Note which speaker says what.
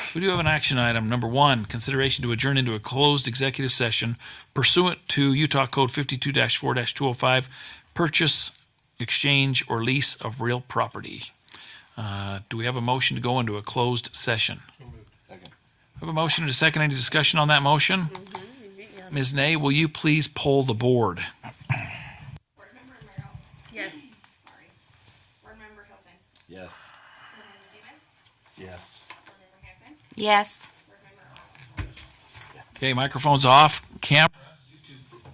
Speaker 1: We do have an action item. Number one, consideration to adjourn into a closed executive session pursuant to Utah Code fifty-two four two oh five, purchase, exchange, or lease of real property. Uh, Do we have a motion to go into a closed session? Have a motion and a second. Any discussion on that motion? Ms. Nay, will you please poll the board?
Speaker 2: Board member Merrill,
Speaker 3: Yes.
Speaker 2: sorry. Board member Hilton,
Speaker 4: Yes.
Speaker 2: board member Stevens,
Speaker 4: Yes.
Speaker 2: board member Hanson,
Speaker 3: Yes.
Speaker 2: board member Arnold.
Speaker 1: Okay, microphone's off. Cam,